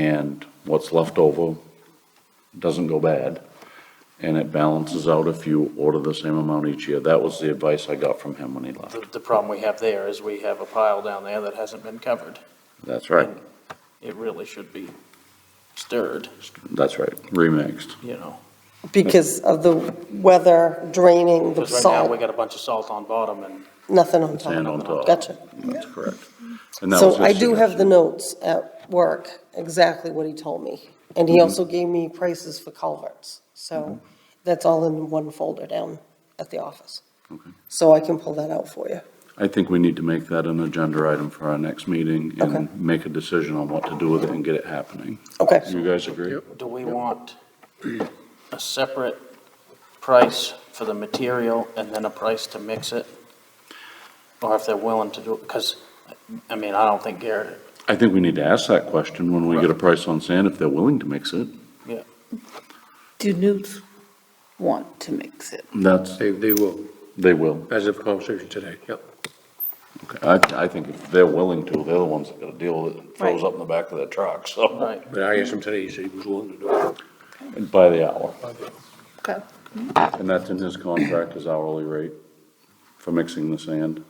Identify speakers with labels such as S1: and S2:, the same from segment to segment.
S1: and what's left over doesn't go bad, and it balances out if you order the same amount each year. That was the advice I got from him when he left.
S2: The, the problem we have there is we have a pile down there that hasn't been covered.
S1: That's right,
S2: It really should be stirred,
S1: that's right, remixed.
S2: you know?
S3: because of the weather draining the
S2: Because right now, we
S3: salt,
S2: got a bunch of salt on bottom and
S3: nothing on top.
S1: Sand on top.
S3: Gotcha.
S1: That's correct. And that was
S3: So
S1: his
S3: I do have the
S1: suggestion.
S3: notes at work, exactly what he told me. And
S1: Mm-hmm.
S3: he also gave me prices for culverts. So that's all in one folder down at the office.
S1: Okay.
S3: So I can pull that out for you.
S1: I think we need to make that an agenda item for our next meeting
S3: Okay.
S1: and make a decision on what to do with it and get it happening.
S3: Okay.
S1: You guys agree?
S2: do we want a separate price for the material and then a price to mix it? Or if they're willing to do it, because, I mean, I don't think Garrett,
S1: I think we need to ask that question when we get a price on sand, if they're willing to mix it.
S4: Do Newt want to mix it?
S1: That's,
S5: They, they will,
S1: they will.
S5: as of conversation today, yep.
S1: Okay. I, I think if they're willing to, they're the ones that gotta deal with it. It Throws up in the back of their truck, so,
S2: right,
S5: But I asked him today, he said he was willing to do it.
S1: by the hour.
S4: Okay.
S1: And that's in his contract, his hourly rate for mixing the sand.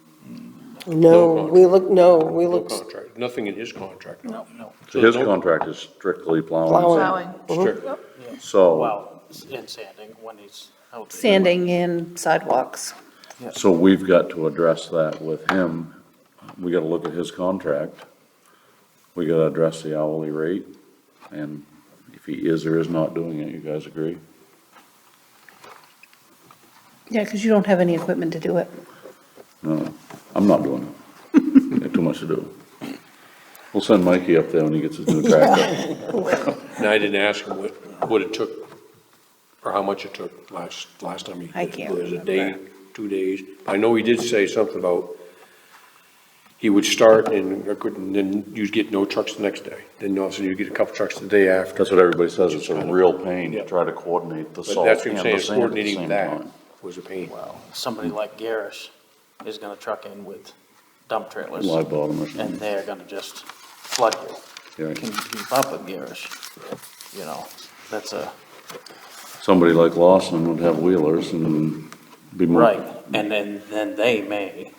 S3: No,
S5: contract.
S3: we look, no, we
S5: No
S3: looked,
S5: contract, nothing in his contract.
S2: no, no,
S1: So his
S5: no-
S1: contract is strictly plowing,
S3: Plowing.
S4: Plowing,
S5: Strict.
S1: so,
S2: well, and sanding when he's out there.
S4: sanding and sidewalks.
S1: so we've got to address that with him. We gotta look at his contract. We gotta address the hourly rate, and if he is or is not doing it, you guys agree?
S4: Yeah, because you don't have any equipment to do it.
S1: No, I'm not doing it. Got too much to do. We'll send Mikey up there when he gets his new tractor.
S5: And I didn't ask him what, what it took, or how much it took last, last time he.
S4: I can't
S5: It was a day,
S4: remember.
S5: two days. I know he did say something about he would start and I couldn't, then you'd get no trucks the next day. Then obviously you'd get a couple trucks the day after.
S1: That's what everybody says, it's a real pain to try to coordinate the
S5: But
S1: salt and
S5: that's
S1: the
S5: what
S1: sand
S5: I'm
S1: at the
S5: saying,
S1: same
S5: coordinating that
S1: time.
S5: was a pain.
S2: Somebody like Garrish is gonna truck in with dump trailers.
S1: Live bottom or
S2: and
S1: something.
S2: they're gonna just flood you.
S1: Yeah.
S2: Can you keep up with Garrish? You know, that's a,
S1: Somebody like Lawson would have wheelers and be more.
S2: right, and then, then they may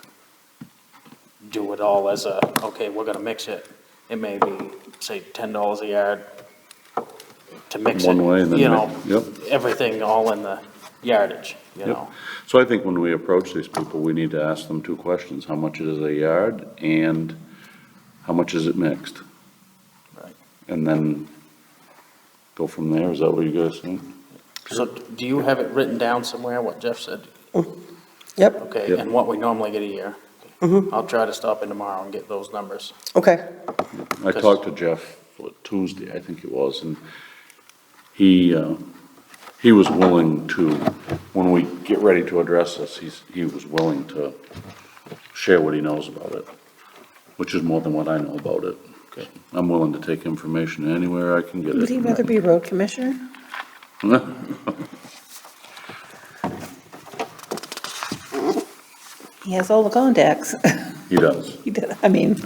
S2: do it all as a, okay, we're gonna mix it. It may be, say, ten dollars a yard to mix it.
S1: One way and then
S2: You know,
S1: mix- yep.
S2: everything all in the yardage, you
S1: Yep.
S2: know?
S1: So I think when we approach these people, we need to ask them two questions, how much it is a yard and how much is it mixed?
S2: Right.
S1: And then go from there, is that what you guys think?
S2: So do you have it written down somewhere, what Jeff said?
S3: yep,
S2: Okay,
S1: Yep.
S2: and what we normally get a year? I'll try to stop in tomorrow and get those numbers.
S3: okay,
S1: I
S2: Because-
S1: talked to Jeff Tuesday, I think it was, and he, uh, he was willing to, when we get ready to address this, he's, he was willing to share what he knows about it, which is more than what I know about it. I'm willing to take information anywhere I can get it.
S4: Would he rather be road commissioner? He has all the contacts.
S1: He does.
S4: He did, I mean,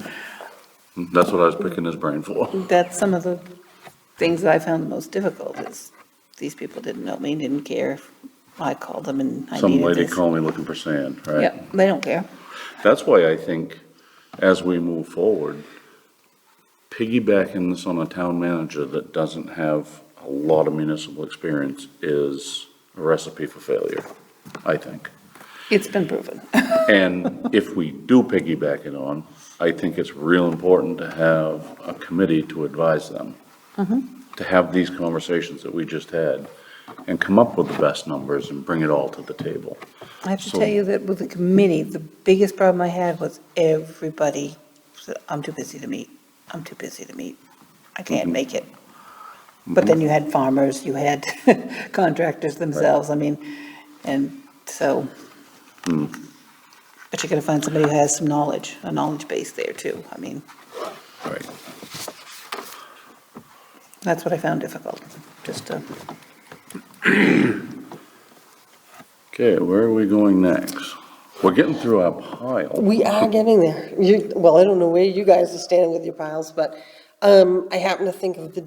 S1: That's what I was picking his brain for.
S4: that's some of the things that I found the most difficult is these people didn't know me, didn't care. if I called them and I
S1: Some
S4: needed
S1: lady
S4: this.
S1: called me looking for sand, right?
S4: Yeah, they don't care.
S1: That's why I think, as we move forward, piggybacking this on a town manager that doesn't have a lot of municipal experience is a recipe for failure, I think.
S4: It's been proven.
S1: And if we do piggyback it on, I think it's real important to have a committee to advise them. To have these conversations that we just had and come up with the best numbers and bring it all to the table.
S4: I have to
S1: So-
S4: tell you that with the committee, the biggest problem I had was everybody said, I'm too busy to meet, I'm too busy to meet, I can't make it. But then you had farmers, you had contractors themselves, I mean, and so. But you gotta find somebody who has some knowledge, a knowledge base there too, I mean,
S1: Right.
S4: that's what I found difficult, just to.
S1: Okay, where are we going next? We're getting through our pile.
S3: we are getting there. You, well, I don't know where you guys are standing with your piles, but um, Um, I happen to think of the